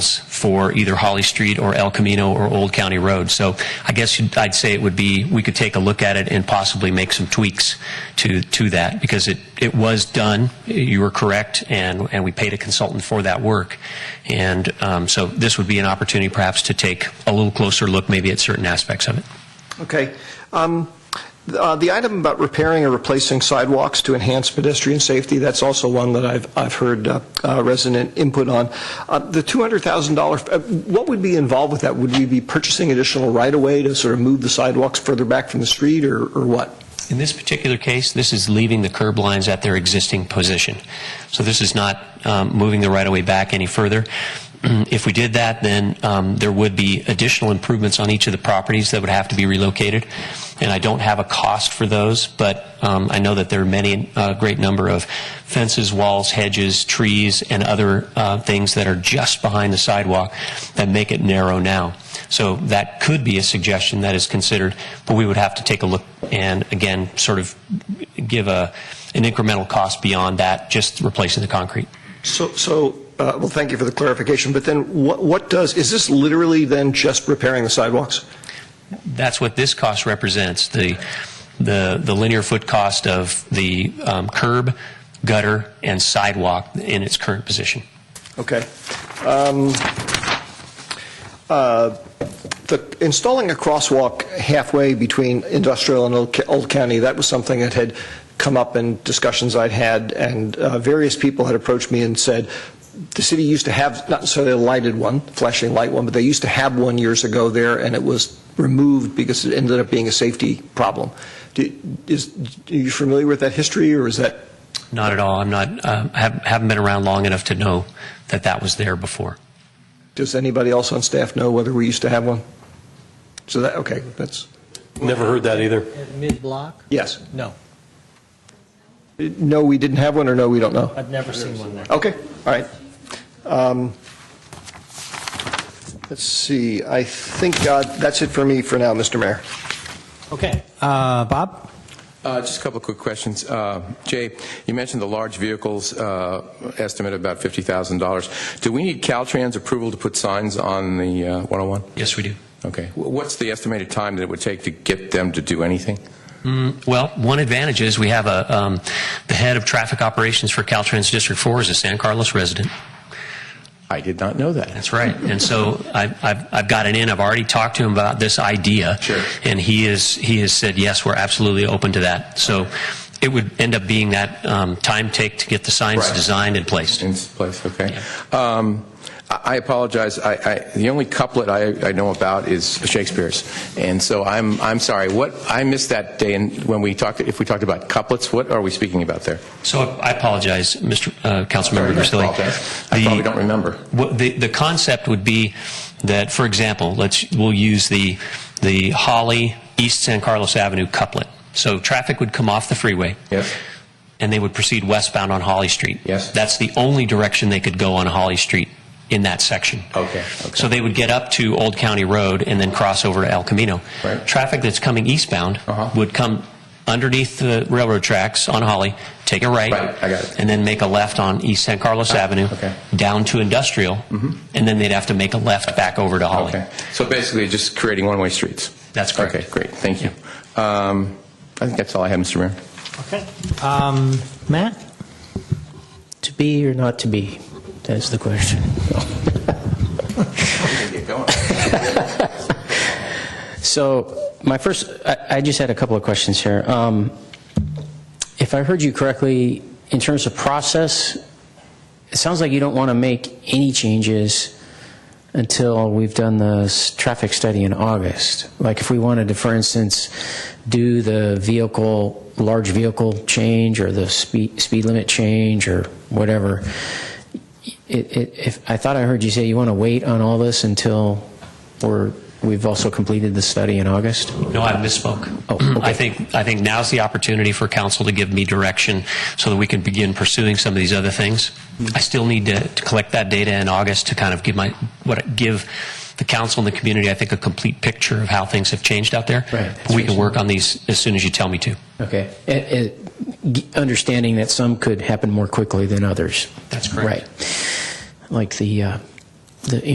for either Holly Street or El Camino or Old County Road. So I guess you'd- I'd say it would be, we could take a look at it and possibly make some tweaks to, to that, because it, it was done, you were correct, and, and we paid a consultant for that work. And um, so this would be an opportunity perhaps to take a little closer look maybe at certain aspects of it. Okay. Um, th- uh, The item about repairing or replacing sidewalks to enhance pedestrian safety, that's also one that I've I've heard uh, uh, resident input on. Uh, The $200,000, uh, what would be involved with that? Would we be purchasing additional right-of-way to sort of move the sidewalks further back from the street, or or what? In this particular case, this is leaving the curb lines at their existing position. So this is not um, moving the right-of-way back any further. If we did that, then um, there would be additional improvements on each of the properties that would have to be relocated, and I don't have a cost for those, but um, I know that there are many, a great number of fences, walls, hedges, trees, and other uh, things that are just behind the sidewalk that make it narrow now. So that could be a suggestion that is considered, but we would have to take a look and, again, sort of give a, an incremental cost beyond that, just replacing the concrete. So, so, uh, well, thank you for the clarification, but then what what does, is this literally then just repairing the sidewalks? That's what this cost represents, the, the, the linear foot cost of the um, curb, gutter, and sidewalk in its current position. Okay. Um, uh, The, installing a crosswalk halfway between industrial and Old Ca- Old County, that was something that had come up in discussions I'd had, and uh, various people had approached me and said, the city used to have, not necessarily a lighted one, flashing light one, but they used to have one years ago there, and it was removed because it ended up being a safety problem. Do- Is, are you familiar with that history, or is that Not at all. I'm not, um, I haven't haven't been around long enough to know that that was there before. Does anybody else on staff know whether we used to have one? So that, okay, that's, Never heard that either. At mid-block? yes. No, No, we didn't have one, or no, we don't know? I've never seen one there. Okay, all right. Um, Let's see, I think uh, that's it for me for now, Mr. Mayor. Okay, uh, Bob? Uh, Just a couple of quick questions. Uh, Jay, you mentioned the large vehicles uh, estimate of about $50,000. Do we need Caltrans approval to put signs on the uh, 101? Yes, we do. Okay. Wh- What's the estimated time that it would take to get them to do anything? Mm, Well, one advantage is we have a, um, the head of traffic operations for Caltrans District 4 is a San Carlos resident. I did not know that. That's right. And so I, I've, I've got it in. I've already talked to him about this idea. Sure. And he is, he has said, yes, we're absolutely open to that. So it would end up being that um, time take to get the signs Right. designed and placed. In its place, okay. Um, I I apologize, I, I- the only couplet I I know about is Shakespeare's, and so I'm, I'm sorry, what, I missed that day and when we talked, if we talked about couplets, what are we speaking about there? So I apologize, Mr. Uh, Councilmember Sorry, I Grisilli. apologize. I The- probably don't remember. What the, the concept would be that, for example, let's we'll use the the Holly East San Carlos Avenue couplet. So traffic would come off the freeway. Yes. And they would proceed westbound on Holly Street. Yes. That's the only direction they could go on Holly Street in that section. Okay, okay. So they would get up to Old County Road and then cross over to El Camino. Right. Traffic that's coming eastbound Uh-huh. would come underneath the railroad tracks on Holly, take a right. Right, I got it. Ah, And then make a left on East San Carlos Avenue. okay. Mm-hmm. Down to Industrial. And then they'd have to make a left back over to Holly. Okay, so basically, just creating one-way streets? That's correct. Okay, great, thank you. Um, I think that's all I have, Mr. Mayor. Okay. Um, Matt? To be or not to be? That's the question. So my first, I, I just had a couple of questions here. Um, if I heard you correctly, in terms of process, it sounds like you don't want to make any changes until we've done the s- traffic study in August. Like if we wanted to, for instance, do the vehicle, large vehicle change or the speed, speed limit change or whatever. It, it, if, I thought I heard you say you want to wait on all this until we're, we've also completed the study in August? No, I misspoke. Oh, okay. I think, I think now's the opportunity for council to give me direction so that we can begin pursuing some of these other things. Mm-hmm. I still need to, to collect that data in August to kind of give my, what, give the council and the community, I think, a complete picture of how things have changed out there. Right. But We can work on these as soon as you tell me to. Okay. It- it- g- Understanding that some could happen more quickly than others. That's correct. Right. Like the, uh, the